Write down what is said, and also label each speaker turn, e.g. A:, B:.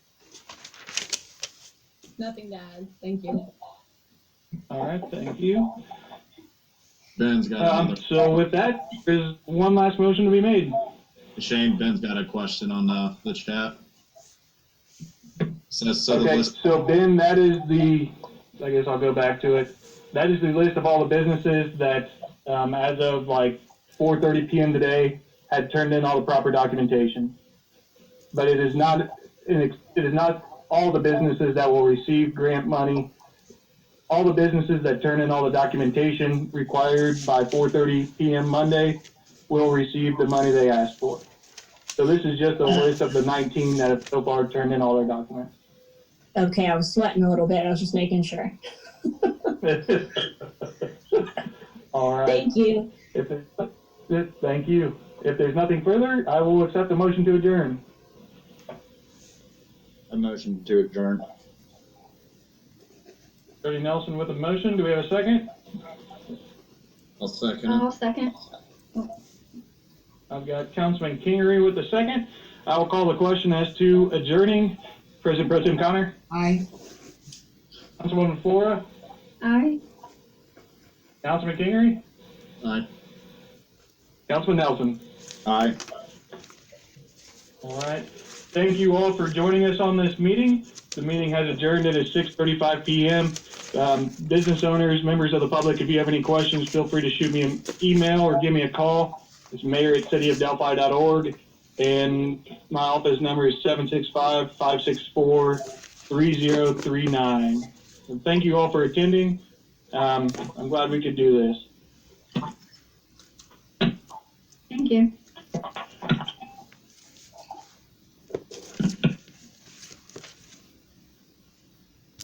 A: Nothing to add. Thank you.
B: All right, thank you.
C: Ben's got
B: Um,
C: another.
B: so with that, there's one last motion to be made.
C: Shane, Ben's got a question on the, the chat. Says, so the
B: Okay,
C: list,
B: so Ben, that is the, I guess I'll go back to it. That is the list of all the businesses that, um, as of like four thirty PM today, had turned in all the proper documentation. But it is not, it is not all the businesses that will receive grant money. All the businesses that turn in all the documentation required by four thirty PM Monday will receive the money they asked for. So this is just a list of the nineteen that have so far turned in all their documents.
D: Okay, I was sweating a little bit. I was just making sure.
B: All right.
D: Thank you.
B: If it, if- thank you. If there's nothing further, I will accept the motion to adjourn.
C: a motion to adjourn.
B: Jody Nelson with a motion. Do we have a second?
C: I'll second it.
E: I'll second.
B: I've got Councilman Kingery with a second. I will call the question as to adjourning. President Pro Tem Connor,
F: Aye.
B: Councilwoman Flora,
E: Aye.
B: Councilman Kingery, Uh,
C: Aye.
B: Councilman Nelson.
C: Aye.
B: All right. Thank you all for joining us on this meeting. The meeting has adjourned. It is 6:35 PM. Um, Business owners, members of the public, if you have any questions, feel free to shoot me an email or give me a call. It's mayor@cityofdelphi.org, and my office number is 765-564-3039. And Thank you all for attending. Um, I'm glad we could do this.
E: Thank you.